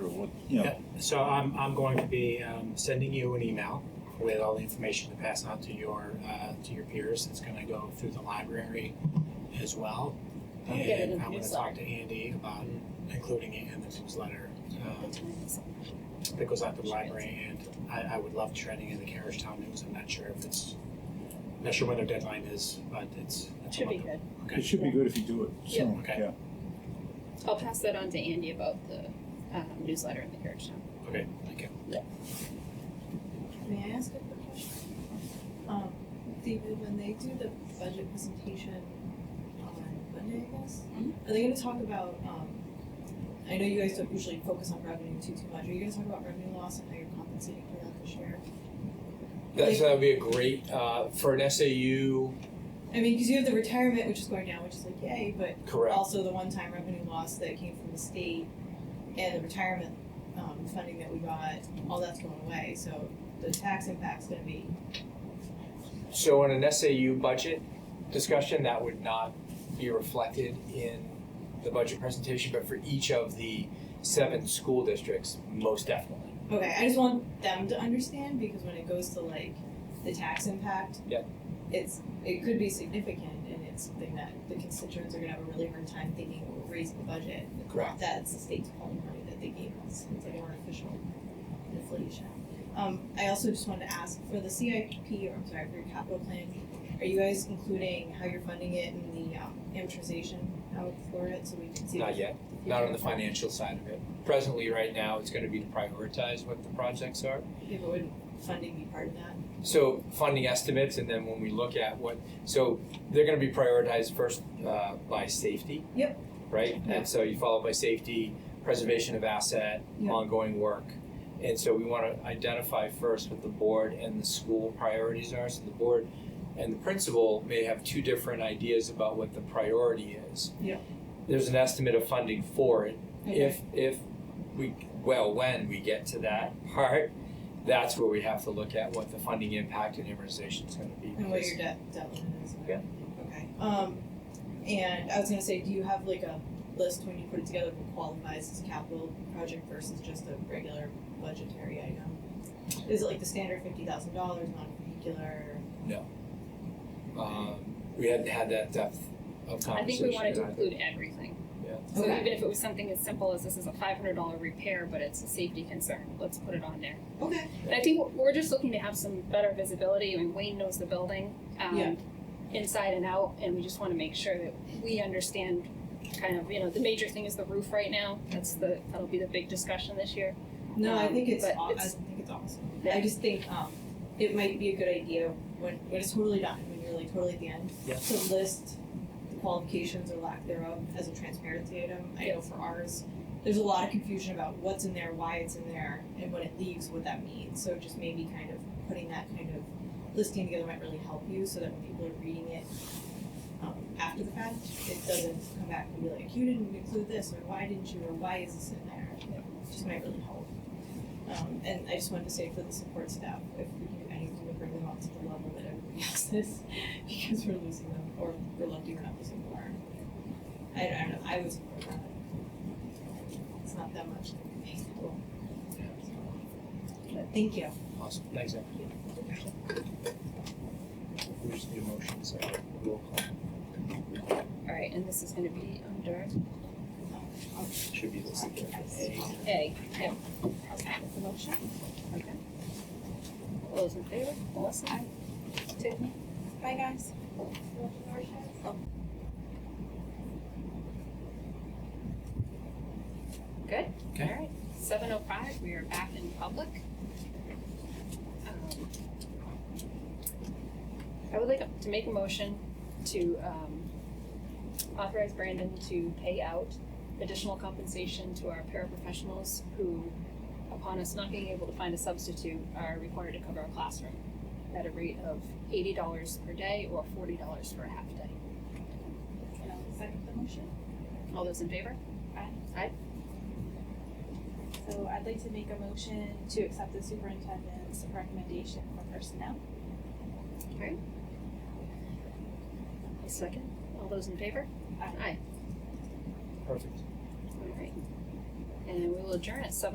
or what, you know, So I'm, I'm going to be um, sending you an email with all the information to pass out to your uh, to your peers. It's going to go through the library as well. I'll and get it in the I'm going to newsletter. talk to Andy about including it in the newsletter uh, that goes out to the library. And I, I would love trending in the Carriagetown News. I'm not sure if it's not sure what their deadline is, but it's, it's Should be about- good. it Okay. should be good if you do it Yeah. soon, Okay. yeah. I'll pass that on to Andy about the um, newsletter in the carriage town. Okay. Thank you. May I ask a quick question? Um, David, when they do the budget presentation on Monday, I guess, are they gonna talk about, um, I know you guys don't usually focus on revenue too, too much, are you gonna talk about revenue loss and how you're compensating for that this year? That's, that'd be a great, uh, for an SAU, I mean, cause you have the retirement, which is going down, which is like yay, but correct, also the one-time revenue loss that came from the state and the retirement, um, funding that we got, all that's going away, so the tax impact's gonna be so in an SAU budget discussion, that would not be reflected in the budget presentation, but for each of the seven school districts, most definitely. Okay, I just want them to understand because when it goes to like the tax impact, Yeah. it's it could be significant and it's something that the constituents are gonna have a really hard time thinking will raise the budget. Correct. That's the state's pulling money that they gave us, it's like artificial inflation. Um, I also just wanted to ask for the CIP, or I'm sorry, for your capital plan, are you guys including how you're funding it and the um, amortization out for it so we can see? Not yet, not on the financial side of it. Presently, right now, it's gonna be to prioritize what the projects are. If it would funding be part of that? So funding estimates, and then when we look at what, so they're gonna be prioritized first uh, by safety. Yep. Right, Yeah. and so you follow by safety, preservation of asset, Yeah. ongoing work. And so we wanna identify first what the board and the school priorities are, so the board and the principal may have two different ideas about what the priority is. Yeah. There's an estimate of funding for it, Okay. if if we well when we get to that part, that's where we have to look at what the funding impact and amortization is going to be. And what your because debt, debt limit is. Yeah. Okay, um, and I was gonna say, do you have like a list when you put it together of what qualifies as a capital project versus just a regular budgetary item? Is it like the standard fifty thousand dollars, non-vehicular? um, we hadn't had that depth of I conversation. think we wanted to either. include everything. Yeah. So Okay. even if it was something as simple as this is a five hundred dollar repair, but it's a safety concern, let's put it on there. Okay. And I think we're- we're just looking to have some better visibility. I mean, Wayne knows the building, Yeah. um, inside and out, and we just wanna make sure that we understand kind of, you know, the major thing is the roof right now. That's the, that'll be the big discussion this year. No, I Um, think it's, but aw- I it's- think it's awesome. Yeah. I just think, um, it might be a good idea when, when it's totally done, when you're like totally at the end, Yeah. to list the qualifications or lack thereof as a transparency item. I know for ours, there's a lot of confusion about what's in there, why it's in there, and when it leaves, what that means. So just maybe kind of putting that kind of listing together might really help you so that when people are reading it um, after the fact, it doesn't come back and be like, you didn't include this, or why didn't you, or why is this in there? Just might really help. Um, and I just wanted to say for the support staff, if we can do anything to bring them up to the level that everybody else is, because we're losing them, or we're lucky we're not losing more. I, I don't know, I would support that. It's not that much. But thank you. Awesome, thanks, Zach. We just need a motion, so roll call. All right, and this is gonna be under Should be listed there. A. A. Yeah. That's the motion. Okay. All those in favor? Melissa? Tiffany? Oh. Bye, guys. Good. Okay. All right. Seven oh five, we are back in public. Um, I would like to make a motion to um, authorize Brandon to pay out additional compensation to our paraprofessionals who, upon us not being able to find a substitute, are required to cover a classroom at a rate of eighty dollars per day or forty dollars for a half day. Second the motion. All those in favor? So I'd like to make a motion to accept the superintendent's recommendation for personnel. A second. All those in favor? Aye. Aye. Perfect. All right. and we will adjourn at seven